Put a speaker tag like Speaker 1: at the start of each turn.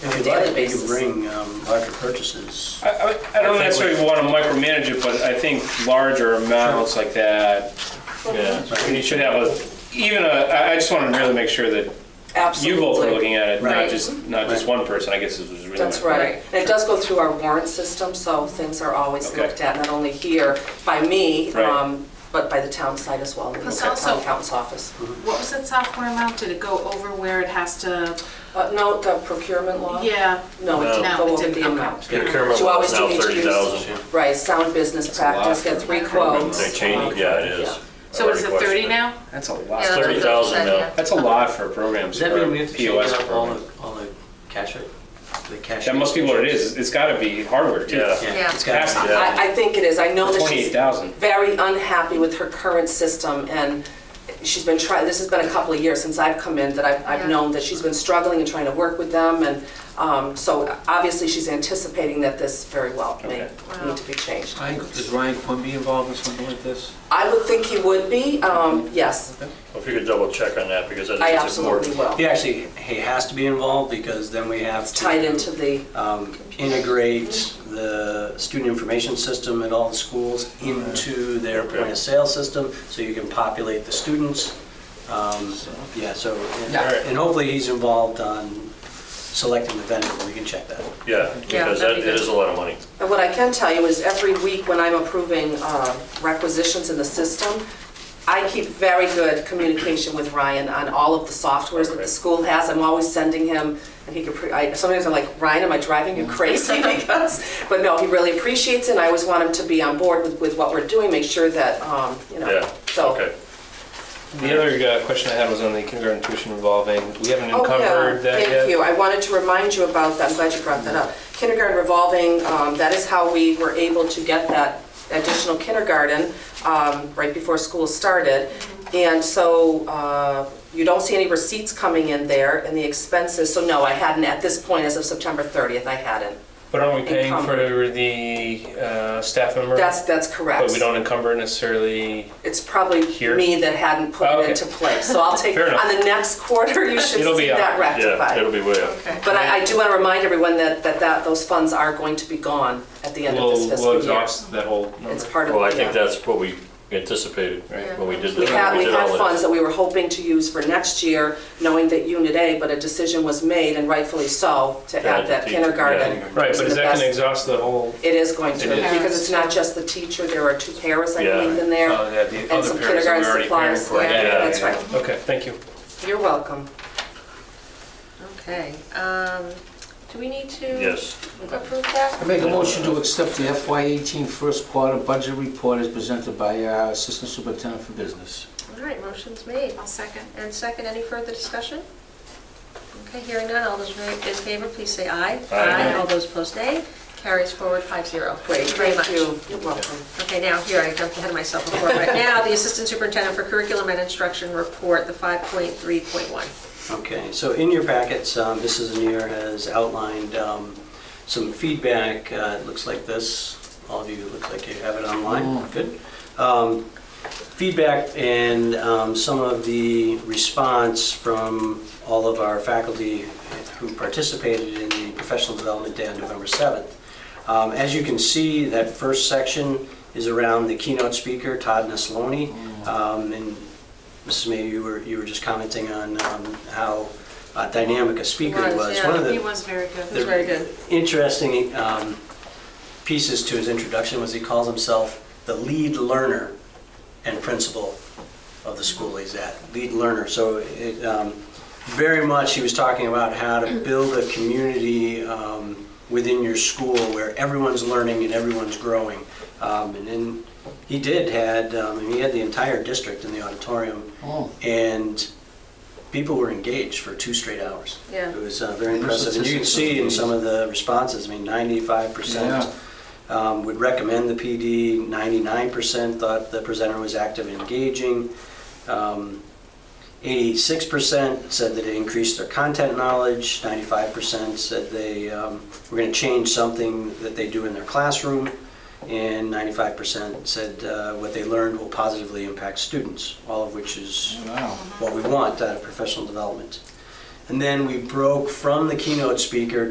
Speaker 1: If
Speaker 2: daily
Speaker 1: you like, we
Speaker 2: basis.
Speaker 1: could bring um, larger purchases.
Speaker 3: I, I, I don't necessarily want to micromanage it, but I think larger amounts like that,
Speaker 4: Yeah.
Speaker 3: and you should have a, even a, I I just want to really make sure that you
Speaker 2: Absolutely.
Speaker 3: both are looking at it, not
Speaker 2: Right.
Speaker 3: just, not just one person, I guess this was really.
Speaker 2: That's
Speaker 3: my point.
Speaker 2: right. And it does go through our warrant system, so things are always
Speaker 3: Okay.
Speaker 2: looked at, not only here by me,
Speaker 3: Right.
Speaker 2: um, but by the town site as well, and the
Speaker 4: Plus
Speaker 2: town
Speaker 4: also-
Speaker 2: accountant's office.
Speaker 4: What was that software amount? Did it go over where it has to,
Speaker 2: Uh, No, the procurement law?
Speaker 4: yeah?
Speaker 2: No, it didn't
Speaker 4: No,
Speaker 2: go
Speaker 4: it
Speaker 2: over
Speaker 4: didn't,
Speaker 2: the
Speaker 4: okay.
Speaker 2: amount.
Speaker 4: Yeah.
Speaker 2: But
Speaker 5: Procurement
Speaker 2: you always
Speaker 5: was
Speaker 2: do
Speaker 5: now
Speaker 2: need to
Speaker 5: thirty
Speaker 2: use-
Speaker 5: thousand.
Speaker 2: Right, sound business
Speaker 3: a lot
Speaker 2: practice,
Speaker 3: for
Speaker 2: get three
Speaker 6: procurement.
Speaker 2: quotes.
Speaker 5: They changed, yeah, it is.
Speaker 4: So is it 30 now?
Speaker 3: That's a
Speaker 6: Yeah,
Speaker 3: lot.
Speaker 6: that's what
Speaker 5: Thirty
Speaker 6: Bill
Speaker 5: thousand
Speaker 6: said,
Speaker 5: now.
Speaker 3: That's a lot for programs,
Speaker 6: Does
Speaker 3: for
Speaker 6: that
Speaker 3: a
Speaker 6: mean we have to change
Speaker 3: POS
Speaker 6: out all
Speaker 3: program.
Speaker 6: the, all the cash, it- the cash?
Speaker 3: That must be what it is, it's gotta be hardware too.
Speaker 5: Yeah.
Speaker 6: Yeah.
Speaker 5: It's
Speaker 3: Has
Speaker 5: gotta
Speaker 3: to
Speaker 5: be.
Speaker 2: I, I think it is. I know that
Speaker 3: Twenty-eight
Speaker 2: she's
Speaker 3: thousand.
Speaker 2: very unhappy with her current system and she's been trying, this has been a couple of years since I've come in that I've, I've
Speaker 6: Yeah.
Speaker 2: known that she's been struggling and trying to work with them and, um, so obviously she's anticipating that this very well may
Speaker 3: Okay.
Speaker 2: need to be changed.
Speaker 7: I- Is Ryan Quimby involved in something like this?
Speaker 2: I would think he would be, um, yes,
Speaker 5: If you could double check on that, because
Speaker 2: I
Speaker 5: that is
Speaker 2: absolutely
Speaker 5: important.
Speaker 2: will.
Speaker 1: He actually, he has to be involved because then we have to.
Speaker 2: It's tied into the,
Speaker 1: um, integrate the student information system at all the schools into their point of sale system, so you can populate the students. Um, Yeah, so, and-
Speaker 2: Yeah.
Speaker 1: and hopefully he's involved on selecting the vendor, we can check that.
Speaker 5: Yeah, because that,
Speaker 6: that'd
Speaker 5: it
Speaker 6: be good.
Speaker 5: is a lot of money.
Speaker 2: And what I can tell you is every week when I'm approving uh, requisitions in the system, I keep very good communication with Ryan on all of the softwares that the school has. I'm always sending him, and he could, pre- I- sometimes I'm like, Ryan, am I driving you crazy? Because, but no, he really appreciates it, and I always want him to be on board with, with what we're doing, make sure that, um, you know.
Speaker 5: Yeah,
Speaker 2: so-
Speaker 5: okay.
Speaker 3: The other uh, question I had was on the kindergarten tuition revolving. We haven't
Speaker 2: Oh, yeah,
Speaker 3: uncovered that yet.
Speaker 2: thank you. I wanted to remind you about that. I'm glad you brought that up. Kindergarten revolving, um, that is how we were able to get that additional kindergarten um, right before school started. And so uh, you don't see any receipts coming in there and the expenses, so no, I hadn't, at this point, as of September 30th, I hadn't.
Speaker 3: But aren't we paying for
Speaker 2: Encumbered.
Speaker 3: the uh, staff member?
Speaker 2: That's, that's correct.
Speaker 3: But we don't encumber necessarily.
Speaker 2: It's probably
Speaker 3: Here?
Speaker 2: me that hadn't put
Speaker 3: Oh,
Speaker 2: it
Speaker 3: okay.
Speaker 2: into place. So I'll take,
Speaker 3: Fair enough.
Speaker 2: on the next quarter, you should
Speaker 3: It'll be
Speaker 2: see
Speaker 3: up.
Speaker 2: that rectified.
Speaker 5: Yeah, it'll be way up.
Speaker 4: Okay.
Speaker 2: But I, I do want to remind everyone that, that, that those funds are going to be gone at the end of
Speaker 3: We'll,
Speaker 2: this fiscal
Speaker 3: we'll
Speaker 2: year.
Speaker 3: exhaust that whole number.
Speaker 2: It's part of,
Speaker 5: Well, I think
Speaker 2: yeah.
Speaker 5: that's what we anticipated
Speaker 3: Right.
Speaker 5: when we did this.
Speaker 2: We had,
Speaker 5: when
Speaker 2: we
Speaker 5: did all
Speaker 2: had
Speaker 5: this.
Speaker 2: funds that we were hoping to use for next year, knowing that Unit A, but a decision was made, and rightfully so, to
Speaker 5: Yeah,
Speaker 2: add
Speaker 5: the
Speaker 2: that
Speaker 5: teacher,
Speaker 2: kindergarten.
Speaker 5: yeah.
Speaker 3: Right,
Speaker 2: to
Speaker 3: but
Speaker 2: the
Speaker 3: is that going
Speaker 2: best-
Speaker 3: to exhaust the whole?
Speaker 2: It is going to,
Speaker 3: It is.
Speaker 2: because it's not just the teacher, there are two paras, I
Speaker 5: Yeah. Uh,
Speaker 2: believe, in there,
Speaker 3: yeah, the
Speaker 2: and some kindergarten supplies.
Speaker 3: Yeah, yeah,
Speaker 2: That's right.
Speaker 3: yeah. Okay, thank you.
Speaker 2: You're welcome.
Speaker 6: Okay, um, do we need to?
Speaker 5: Yes.
Speaker 6: Approve
Speaker 7: I
Speaker 6: that?
Speaker 7: make a motion to accept the FY18 first quarter budget report as presented by uh, Assistant Superintendent for Business.
Speaker 6: All right, motion's made.
Speaker 4: I'll second.
Speaker 6: And second, any further discussion? Okay, hearing none, all those in favor, please say aye.
Speaker 5: Aye.
Speaker 6: All those opposed, nay. Carries forward five zero.
Speaker 2: Great,
Speaker 6: very
Speaker 2: thank
Speaker 6: much.
Speaker 2: you. You're welcome.
Speaker 6: Okay, now, here, I jumped ahead of myself before. Right now, the Assistant Superintendent for Curriculum and Instruction Report, the 5.3.1.
Speaker 1: Okay, so in your packets, um, Mrs. Neer has outlined um, some feedback. Uh, It looks like this. All of you, it looks like you have it online. Good. Um, Feedback and um, some of the response from all of our faculty who participated in the professional development day on November 7th. Um, As you can see, that first section is around the keynote speaker, Todd Nesloni. Um, And Mrs. May, you were, you were just commenting on um, how uh, dynamic a speaker he
Speaker 6: Was,
Speaker 1: was.
Speaker 6: yeah.
Speaker 1: One of the-
Speaker 4: He was very good.
Speaker 6: was very good.
Speaker 1: Interesting um, pieces to his introduction was he calls himself the lead learner and principal of the school he's at, lead learner. So it, um, very much, he was talking about how to build a community um, within your school where everyone's learning and everyone's growing. Um, And then he did had, um, he had the entire district in the auditorium.
Speaker 7: Oh.
Speaker 1: And people were engaged for two straight hours.
Speaker 6: Yeah.
Speaker 1: It was uh, very
Speaker 7: And the
Speaker 1: impressive. And you can
Speaker 7: statistics
Speaker 1: see in
Speaker 7: of
Speaker 1: some of the responses, I mean, ninety-five percent um, would recommend the PD. 99% thought the presenter was active and engaging. Um, 86% said that it increased their content knowledge. 95% said they um, were going to change something that they do in their classroom. And 95% said uh, what they learned will positively impact students, all of which is
Speaker 7: Wow.
Speaker 1: what we want out of professional development. And then we broke from the keynote speaker